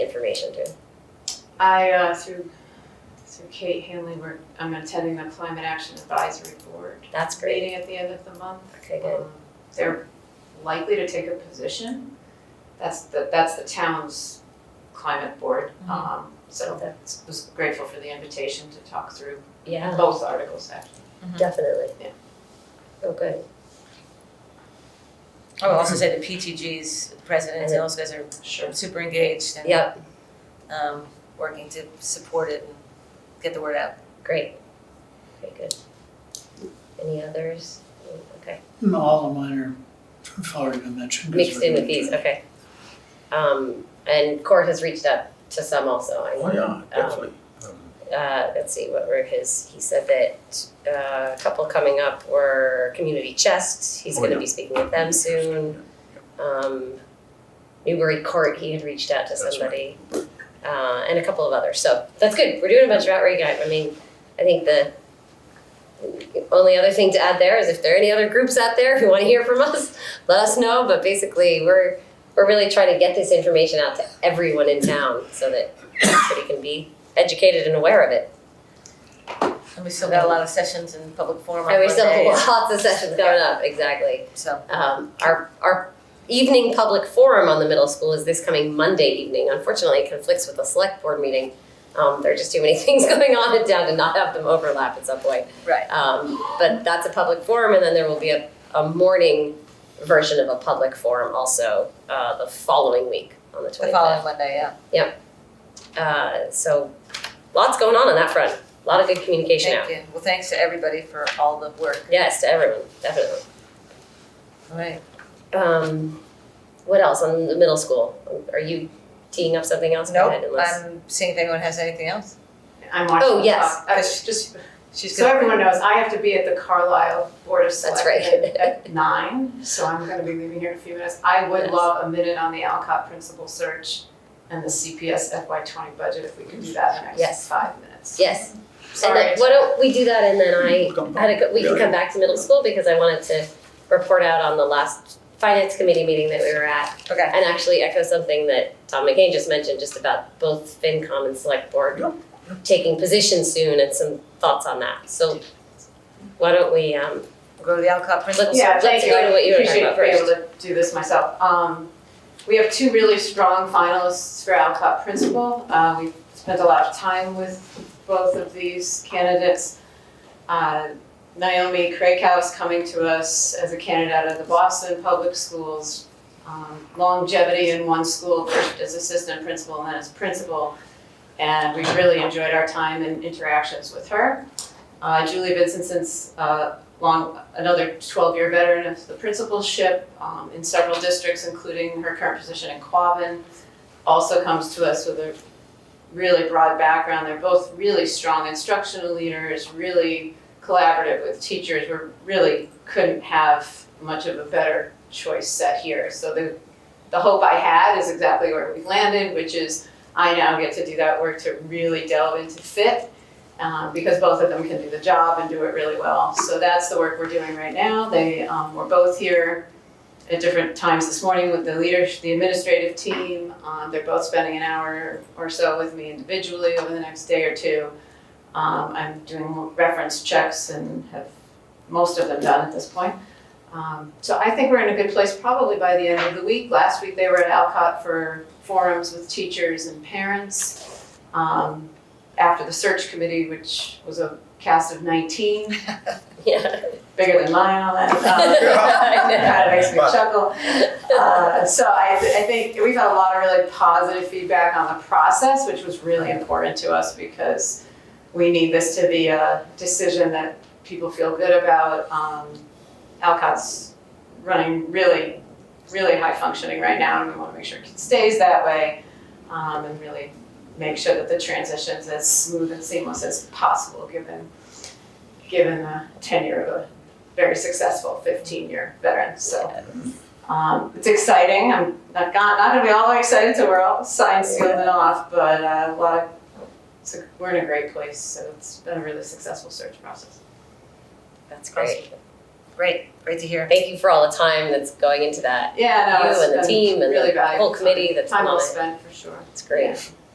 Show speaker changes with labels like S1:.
S1: information to?
S2: I, uh, through, through Kate Hanley, we're, I'm attending the Climate Action Advisory Board
S1: That's great.
S2: meeting at the end of the month.
S1: Okay, good.
S2: Um, They're likely to take a position. That's the, that's the town's climate board. Um,
S1: So
S2: so
S1: that,
S2: was grateful for the invitation to talk through
S1: yeah,
S2: both articles actually.
S1: definitely.
S2: Mm-hmm. Yeah.
S1: Oh, good.
S3: I would also say the PTG's presidents and those guys are
S2: Sure.
S3: super engaged and
S1: Yep,
S3: um working to support it and get the word out.
S1: great. Okay, good. Any others? Okay,
S4: And all of mine are, I've already been mentioned. 'cause
S1: mixed
S4: we're
S1: in with
S4: gonna
S1: these,
S4: do it.
S1: okay. Um, and Court has reached out to some also. I um,
S5: Oh, yeah, definitely.
S1: uh, let's see, what were his, he said that uh, a couple coming up were Community Chest, he's
S5: Oh,
S1: gonna
S5: yeah.
S1: be speaking with them soon. Um, Newbury Court, he had reached out to
S5: That's right.
S1: somebody. Uh, and a couple of others, so that's good, we're doing a bunch of outreach, I, I mean, I think the only other thing to add there is if there are any other groups out there who wanna hear from us, let us know, but basically, we're, we're really trying to get this information out to everyone in town so that everybody can be educated and aware of it.
S3: And we still got a lot of sessions and public forum on
S1: And we still
S3: Monday,
S1: have lots of sessions going up, exactly.
S3: so
S1: Um, our, our evening public forum on the middle school is this coming Monday evening. Unfortunately, it conflicts with the select board meeting. Um, there are just too many things going on in town to not have them overlap at some point.
S3: Right.
S1: Um, but that's a public forum and then there will be a, a morning version of a public forum also, uh, the following week on the
S3: the
S1: twenty-fifth.
S3: following Monday, yeah.
S1: Uh, so lots going on on that front, a lot of good communication out.
S3: Thank you. Well, thanks to everybody for all the work.
S1: Yes, to everyone, definitely.
S3: All right.
S1: Um, what else on the middle school? Are you teeing up something else? Go ahead,
S3: Nope,
S1: unless-
S3: I'm seeing if anyone has anything else.
S2: I'm watching.
S1: Oh, yes.
S2: the- I was just,
S3: She's
S2: so
S3: gonna.
S2: everyone knows, I have to be at the Carlisle Board of
S1: That's
S2: Selectmen at nine, so I'm gonna be leaving here in a few minutes. I would
S1: Yes.
S2: love a minute on the Alcott principal search and the CPS FY twenty budget, if we could do that in the
S1: Yes.
S2: next five minutes.
S1: yes. And
S2: Sorry.
S1: then, why don't we do that and then I
S5: Come
S1: had a, go- we can
S5: Yeah.
S1: come back to middle school because I wanted to report out on the last finance committee meeting that we were at
S3: Okay,
S1: and actually echo something that Tom McCain just mentioned just about both FinCom and Select Board
S5: Yeah.
S1: taking positions soon and some thoughts on that. So why don't we, um,
S3: we'll go to the Alcott principal.
S2: Yeah,
S1: Let's
S2: thank you,
S1: go to
S2: I
S1: what you were talking
S2: appreciate
S1: about
S2: being able to do this myself. Um, we have two really strong finalists for Alcott Principal. Uh, we've spent a lot of time with both of these candidates. Uh, Naomi Craighouse coming to us as a candidate out of the Boston Public Schools. Um, longevity in one school, first as assistant principal and then as principal. And we really enjoyed our time and interactions with her. Uh, Julie Vincenson's, uh, long, another twelve-year veteran of the principalship um, in several districts, including her current position in Quabbin. Also comes to us with a really broad background. They're both really strong instructional leaders, really collaborative with teachers. We really couldn't have much of a better choice set here. So the, the hope I had is exactly where we landed, which is I now get to do that work to really delve into fit um, because both of them can do the job and do it really well. So that's the work we're doing right now. They um, were both here at different times this morning with the leadership, the administrative team. Um, they're both spending an hour or so with me individually over the next day or two. Um, I'm doing reference checks and have most of them done at this point. Um, so I think we're in a good place probably by the end of the week. Last week they were at Alcott for forums with teachers and parents. Um, after the search committee, which was a cast of 19,
S1: yeah.
S2: bigger than mine, all that. Um, That makes me chuckle. Uh, so I, I think we've had a lot of really positive feedback on the process, which was really important to us because we need this to be a decision that people feel good about. Um, Alcott's running really, really high functioning right now, and we want to make sure it stays that way um, and really make sure that the transition's as smooth and seamless as possible, given given the tenure of a very successful 15-year veteran. So um, it's exciting. I'm not, not, not going to be all that excited till we're all signed, sealed, and off, but uh, a lot. Of, it's a, we're in a great place, so it's been a really successful search process.
S1: That's
S3: Awesome.
S1: great.
S3: Great, great to hear.
S1: Thank you for all the time that's going into that.
S2: Yeah, no,
S1: You
S2: it's
S1: and the
S2: been
S1: team and
S2: really
S1: the whole
S2: valuable time.
S1: committee that's
S2: Time
S1: on
S2: well
S1: it.
S2: spent, for sure.
S1: It's great.